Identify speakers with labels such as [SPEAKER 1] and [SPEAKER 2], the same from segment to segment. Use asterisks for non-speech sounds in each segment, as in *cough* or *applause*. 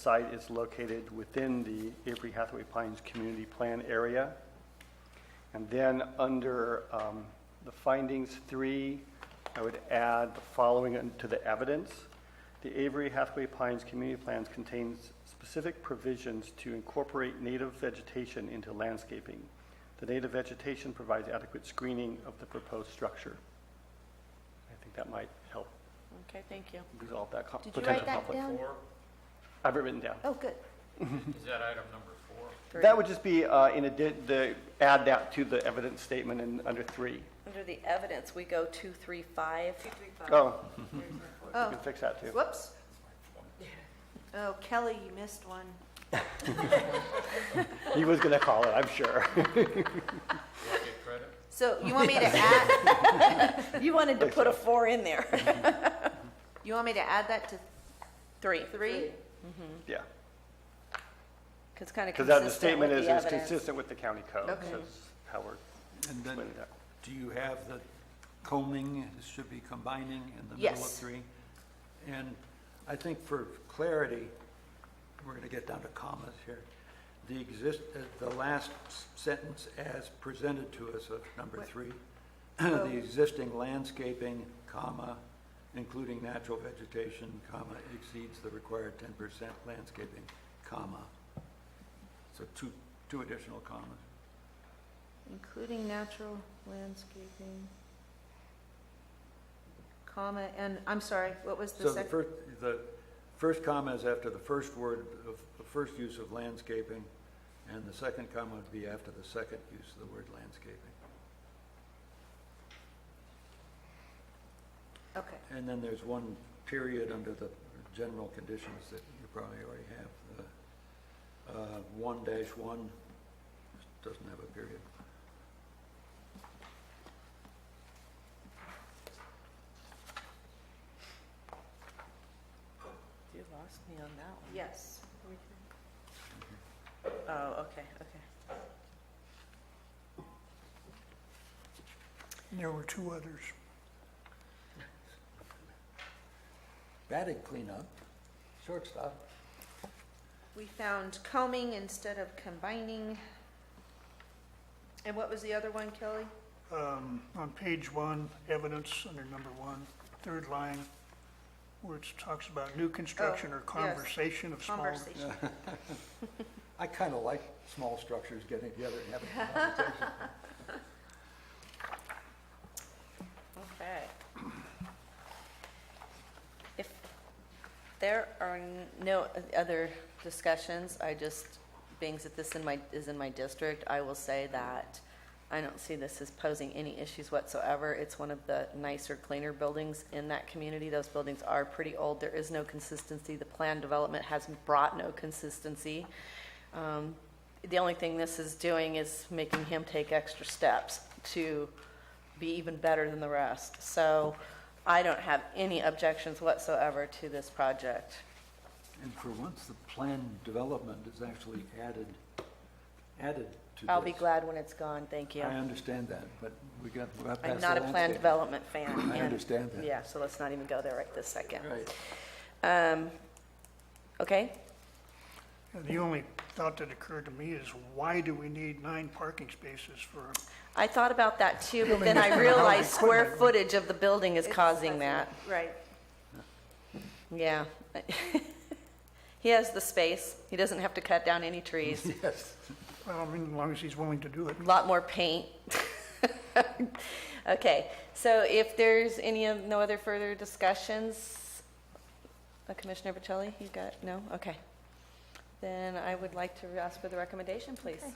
[SPEAKER 1] Site is located within the Avery Hathaway Pines Community Plan area. And then under um, the findings three, I would add the following to the evidence. The Avery Hathaway Pines Community Plans contains specific provisions to incorporate native vegetation into landscaping. The native vegetation provides adequate screening of the proposed structure. I think that might help
[SPEAKER 2] Okay, thank you.
[SPEAKER 1] resolve that co-
[SPEAKER 3] Did you
[SPEAKER 1] potential
[SPEAKER 3] write
[SPEAKER 1] conflict.
[SPEAKER 3] that down?
[SPEAKER 4] Four,
[SPEAKER 1] I have it written down.
[SPEAKER 3] Oh, good.
[SPEAKER 4] is that item number four?
[SPEAKER 1] That would just be uh, in addition, the, add that to the evidence statement in, under three.
[SPEAKER 2] Under the evidence, we go two, three, five.
[SPEAKER 1] Oh, you
[SPEAKER 3] Oh,
[SPEAKER 1] can fix that too.
[SPEAKER 3] whoops. Oh, Kelly, you missed one.
[SPEAKER 1] He was going to call it, I'm sure. *laughs*
[SPEAKER 4] Do I get credit?
[SPEAKER 3] So you want me to add,
[SPEAKER 2] You wanted to put a four in there.
[SPEAKER 3] you want me to add that to
[SPEAKER 2] *laughs* Three.
[SPEAKER 3] three?
[SPEAKER 1] Yeah.
[SPEAKER 2] Because kind of
[SPEAKER 1] Because that, the
[SPEAKER 2] consistent with
[SPEAKER 1] statement is,
[SPEAKER 2] the
[SPEAKER 1] is
[SPEAKER 2] evidence.
[SPEAKER 1] consistent with the county code. so
[SPEAKER 3] Okay.
[SPEAKER 1] that's how we're
[SPEAKER 5] And then,
[SPEAKER 1] explaining that.
[SPEAKER 5] do you have the combing, it should be combining in the middle of
[SPEAKER 3] Yes.
[SPEAKER 5] three? And I think for clarity, we're gonna get down to commas here. The exist, uh, the last s- sentence as presented to us of number
[SPEAKER 3] What?
[SPEAKER 5] three, *clears throat* the existing landscaping, comma, including natural vegetation, comma, exceeds the required ten percent landscaping, comma. So two, two additional commas.
[SPEAKER 3] Including natural landscaping, comma, and, I'm sorry, what was the
[SPEAKER 5] So the
[SPEAKER 3] second?
[SPEAKER 5] first, the first comma is after the first word of, the first use of landscaping, and the second comma would be after the second use of the word landscaping.
[SPEAKER 3] Okay,
[SPEAKER 5] And then there's one period under the general conditions that you probably already have. uh, One dash one doesn't have a period.
[SPEAKER 2] You lost me on that
[SPEAKER 3] yes.
[SPEAKER 2] one. Oh, okay, okay.
[SPEAKER 6] There were two others.
[SPEAKER 5] Batted cleanup, shortstop.
[SPEAKER 3] We found combing instead of combining. And what was the other one, Kelly?
[SPEAKER 6] Um, On page one, evidence under number one, third line, where it talks about new construction or
[SPEAKER 3] yes.
[SPEAKER 6] conversation of small.
[SPEAKER 3] Conversation.
[SPEAKER 5] I kind of like small structures getting together and having a conversation.
[SPEAKER 2] Okay. If there are n- no other discussions, I just, being that this in my, is in my district, I will say that I don't see this as posing any issues whatsoever. It's one of the nicer, cleaner buildings in that community. Those buildings are pretty old. There is no consistency. The plan development has brought no consistency. Um, The only thing this is doing is making him take extra steps to be even better than the rest. So I don't have any objections whatsoever to this project.
[SPEAKER 5] And for once, the plan development is actually added, added to this.
[SPEAKER 2] I'll be glad when it's gone, thank you.
[SPEAKER 5] I understand that, but we got, we got past
[SPEAKER 2] I'm
[SPEAKER 5] the
[SPEAKER 2] not a plan
[SPEAKER 5] landscape.
[SPEAKER 2] development fan.
[SPEAKER 5] I
[SPEAKER 2] and-
[SPEAKER 5] understand that.
[SPEAKER 2] Yeah, so let's not even go there right this second.
[SPEAKER 5] Right.
[SPEAKER 2] Um, Okay,
[SPEAKER 6] And The only thought that occurred to me is why do we need nine parking spaces for,
[SPEAKER 2] I thought about that too, but then I realized square footage of the building is causing that.
[SPEAKER 3] Right.
[SPEAKER 2] Yeah. *laughs* He has the space, he doesn't have to cut down any trees.
[SPEAKER 6] *laughs*
[SPEAKER 5] Yes.
[SPEAKER 6] well, I mean, as long as he's willing to do it.
[SPEAKER 2] a lot more paint. *laughs* Okay, so if there's any, of- no other further discussions, uh, Commissioner Bocelli, you got, no? Okay. Then I would like to ask for the recommendation, please.
[SPEAKER 3] Okay.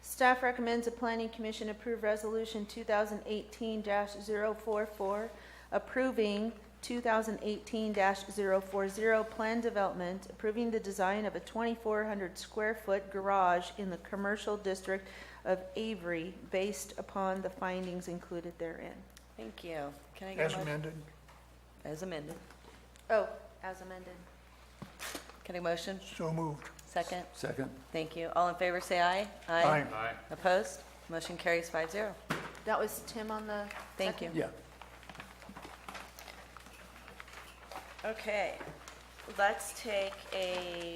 [SPEAKER 3] Staff recommends the planning commission approve resolution two thousand eighteen 44 approving two thousand eighteen 40 plan development, approving the design of a twenty-four hundred square foot garage in the commercial district of Avery based upon the findings included therein.
[SPEAKER 2] Thank you. Can I get
[SPEAKER 6] As
[SPEAKER 2] a motion?
[SPEAKER 6] amended,
[SPEAKER 2] As amended.
[SPEAKER 3] Oh, as amended.
[SPEAKER 2] Can I motion?
[SPEAKER 6] so moved.
[SPEAKER 2] Second?
[SPEAKER 5] Second,
[SPEAKER 2] Thank you. All in favor, say aye.
[SPEAKER 6] Aye.
[SPEAKER 4] Aye.
[SPEAKER 2] Opposed? Motion carries five zero.
[SPEAKER 3] That was Tim on the
[SPEAKER 2] Thank you.
[SPEAKER 3] second?
[SPEAKER 5] yeah.
[SPEAKER 2] Okay. Let's take a